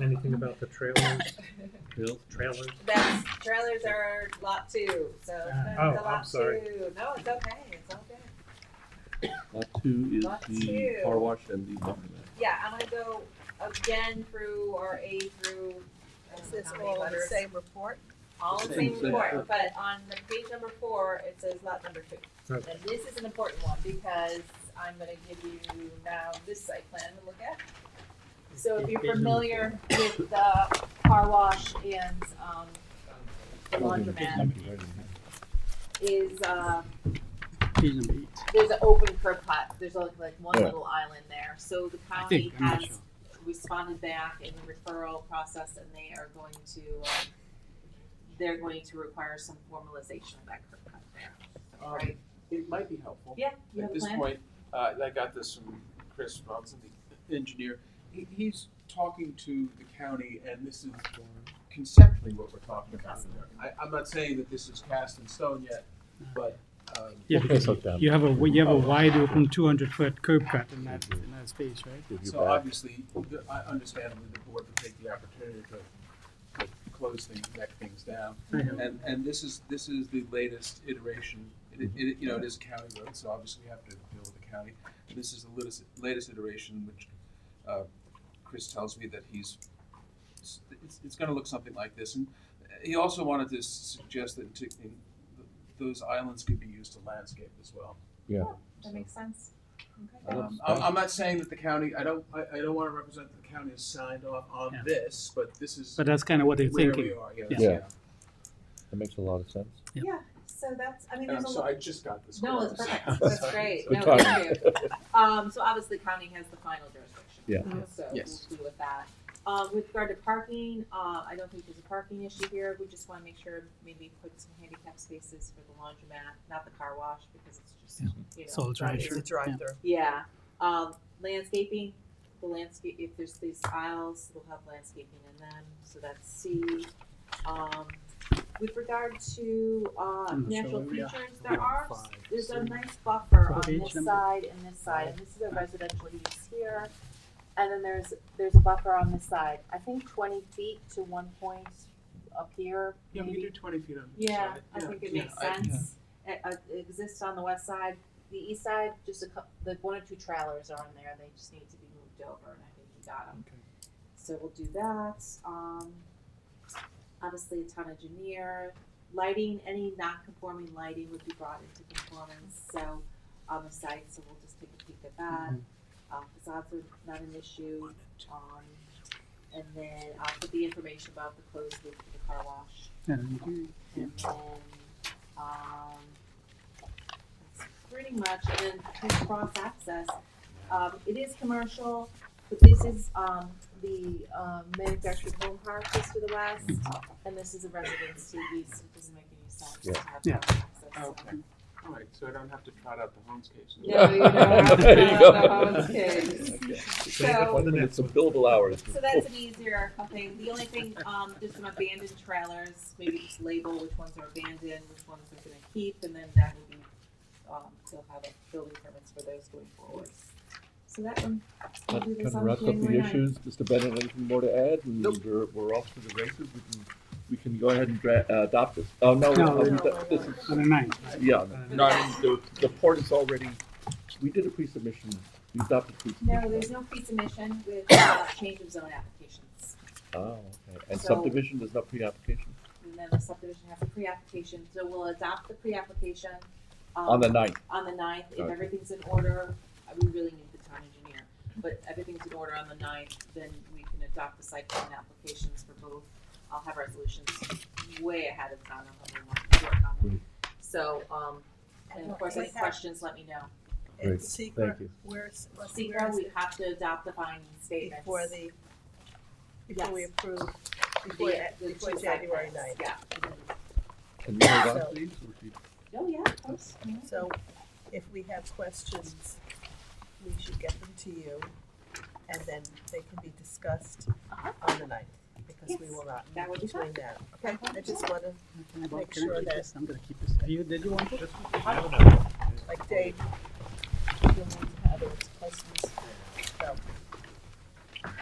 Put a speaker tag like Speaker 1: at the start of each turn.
Speaker 1: Anything about the trailers,
Speaker 2: Bill?
Speaker 1: trailers?
Speaker 3: That's, trailers are lot two, so. it's
Speaker 1: Oh,
Speaker 3: a
Speaker 1: I'm
Speaker 3: lot
Speaker 1: sorry.
Speaker 3: two. No, it's okay, it's all good.
Speaker 2: Lot two is
Speaker 3: Lot
Speaker 2: the
Speaker 3: two.
Speaker 2: car wash and the laundromat.
Speaker 3: Yeah, I'm gonna go again through our A through, I
Speaker 4: Is
Speaker 3: don't know
Speaker 4: this
Speaker 3: how many
Speaker 4: all in the
Speaker 3: letters.
Speaker 4: same report?
Speaker 3: All in the
Speaker 2: Same
Speaker 3: same
Speaker 2: thing.
Speaker 3: report, but on the page number four, it says lot number two.
Speaker 1: Okay.
Speaker 3: And this is an important one because I'm gonna give you now this site plan to look at. So if you're
Speaker 1: Page number
Speaker 3: familiar with the car wash and, um, the laundromat is, uh, there's an open curb cut, there's only like one
Speaker 5: Yeah.
Speaker 3: little island there, so the
Speaker 6: I
Speaker 3: county
Speaker 6: think, I'm not
Speaker 3: has
Speaker 6: sure.
Speaker 3: responded back in the referral process and they are going to, um, they're going to require some formalization of that curb cut there.
Speaker 7: Um, It might be helpful.
Speaker 3: Yeah, you have
Speaker 7: At
Speaker 3: a
Speaker 7: this
Speaker 3: plan?
Speaker 7: point, uh, I got this from Chris Robinson, the engineer. He, he's talking to the county and this is conceptually what we're talking about. I, I'm not saying that this is cast in stone yet, but, um,
Speaker 6: Yeah, because you have a, you have a wide open two hundred foot curb cut in that, in that space, right?
Speaker 7: so obviously, the- I understandably, the board would take the opportunity to, to close things, back things down. And, and this is, this is the latest iteration. It, it, you know, it is a county road, so obviously we have to deal with the county. This is the latest, latest iteration, which, uh, Chris tells me that he's, it's, it's gonna look something like this. And he also wanted to suggest that to, in, those islands could be used to landscape as well.
Speaker 3: That makes sense? Okay.
Speaker 7: Um, I'm, I'm not saying that the county, I don't, I, I don't wanna represent the county has signed off on
Speaker 6: Yeah.
Speaker 7: this, but this is
Speaker 6: But that's kind of what they're
Speaker 7: where
Speaker 6: thinking.
Speaker 7: we are, yeah.
Speaker 6: Yeah.
Speaker 5: Yeah. That makes a lot of sense.
Speaker 6: Yeah.
Speaker 3: Yeah, so that's, I mean,
Speaker 7: And I'm
Speaker 3: there's a
Speaker 7: sorry, Um, I just got this.
Speaker 3: No, it's perfect, that's great,
Speaker 5: Good
Speaker 3: no,
Speaker 5: timing.
Speaker 3: thank you. Um, so obviously county has the final jurisdiction.
Speaker 5: Yeah.
Speaker 3: So
Speaker 7: Yes.
Speaker 3: we'll deal with that. Um, with regard to parking, uh, I don't think there's a parking issue here, we just wanna make sure maybe put some handicap spaces for the laundromat, not the car wash, because it's just,
Speaker 6: Yeah.
Speaker 3: you know.
Speaker 6: Soul
Speaker 3: driving.
Speaker 6: Sure.
Speaker 4: It's a drive-through.
Speaker 3: Yeah, um, landscaping, the landscape, if there's these aisles, we'll have landscaping in them, so that's C. Um, with regard to, uh,
Speaker 6: I'm not sure
Speaker 3: natural
Speaker 6: where we are.
Speaker 3: features, there are,
Speaker 6: Five,
Speaker 3: there's a
Speaker 6: six.
Speaker 3: nice buffer
Speaker 6: What
Speaker 3: on
Speaker 6: page
Speaker 3: this
Speaker 6: number?
Speaker 3: side and this side, and this is a residential use here. And then there's, there's a buffer on this side, I think twenty feet to one point up here,
Speaker 7: Yeah, we can do
Speaker 3: maybe.
Speaker 7: twenty feet on each
Speaker 3: Yeah,
Speaker 7: side.
Speaker 3: I think it
Speaker 7: yeah,
Speaker 3: makes
Speaker 7: I-
Speaker 3: sense. It, uh, it exists on the west side, the east side, just a cou- the one or two trailers are in there, they just need to be moved over, and I think we got them.
Speaker 7: Okay.
Speaker 3: So we'll do that, um, obviously a ton of engineer, lighting, any non-conforming lighting would be brought into conformance, so, on the site, so we'll just take a peek at that.
Speaker 7: Mm-hmm.
Speaker 3: Uh, facades are not an issue, um, and then I'll put the information about the closed loop for the car wash.
Speaker 6: Yeah, you-
Speaker 3: And then, um, that's pretty much, and then through cross access, um, it is commercial, but this is, um, the, um, manufactured home park just to the west, and this is a residence to the east, so it doesn't make any sense to
Speaker 5: Yeah. Oh.
Speaker 3: have
Speaker 6: Yeah.
Speaker 3: cross access. so.
Speaker 7: Okay, all right, so I don't have to trot out the Holmes case.
Speaker 3: No, you don't have to
Speaker 5: There you
Speaker 3: have
Speaker 5: go.
Speaker 3: the Holmes case.
Speaker 1: Save it for the next
Speaker 5: It's a
Speaker 1: one.
Speaker 5: billable hours.
Speaker 3: So that's an easier thing. The only thing, um, just some abandoned trailers, maybe just label which ones are abandoned, which ones are gonna keep, and then that would be, um, they'll have a building permits for those going forward. So that one, we'll
Speaker 5: That
Speaker 3: do
Speaker 5: kind
Speaker 3: this
Speaker 5: of
Speaker 3: on
Speaker 5: wraps up the
Speaker 3: January ninth.
Speaker 5: issues. Mr. Bennett, anything more to add? And
Speaker 7: Nope.
Speaker 5: we're, we're off to the races. We can, we can go ahead and dra- uh, adopt this. Oh, no,
Speaker 6: No,
Speaker 5: um,
Speaker 6: no,
Speaker 5: th- this is,
Speaker 6: On the ninth.
Speaker 5: yeah.
Speaker 1: Uh,
Speaker 5: No, I mean, the, the port is already, we did a pre-submission, we adopted pre-submission.
Speaker 3: No, there's no pre-submission with, uh, change of zone applications.
Speaker 5: Oh, okay. And
Speaker 3: So-
Speaker 5: subdivision, there's no pre-application?
Speaker 3: And then the subdivision has a pre-application, so we'll adopt the pre-application. um,
Speaker 5: On the ninth,
Speaker 3: on the ninth, if
Speaker 5: Okay.
Speaker 3: everything's in order, uh, we really need the town engineer, but everything's in order on the ninth, then we can adopt the site plan applications for both. I'll have resolutions way ahead of time, I'll have a lot to work on them. So, um, and of course, any questions, let me know.
Speaker 5: Great,
Speaker 4: And secret,
Speaker 5: thank you.
Speaker 4: where's, where's
Speaker 3: Secra, we have to adopt the finding statements.
Speaker 4: before the, before we
Speaker 3: Yes.
Speaker 4: approve,
Speaker 3: The-
Speaker 4: before,
Speaker 3: the two
Speaker 4: before
Speaker 3: site
Speaker 4: January
Speaker 3: plans,
Speaker 4: ninth.
Speaker 3: Yeah.
Speaker 5: Can we move on,
Speaker 4: So-
Speaker 5: please? Or do you-
Speaker 3: Oh, yeah, of course.
Speaker 4: So if we have questions, we should get them to you, and then they can be discussed
Speaker 3: Uh-huh.
Speaker 4: on the ninth, because we
Speaker 3: Yes,
Speaker 4: will not
Speaker 3: that would
Speaker 4: be
Speaker 3: be Uh-huh.
Speaker 4: doing that, okay? I just wanna,
Speaker 6: Can I borrow-
Speaker 4: Make
Speaker 6: can I
Speaker 4: sure
Speaker 6: keep
Speaker 4: that-
Speaker 6: this? I'm gonna keep this. Are you, did you want it?
Speaker 4: like Dave, you'll need to have those questions, so.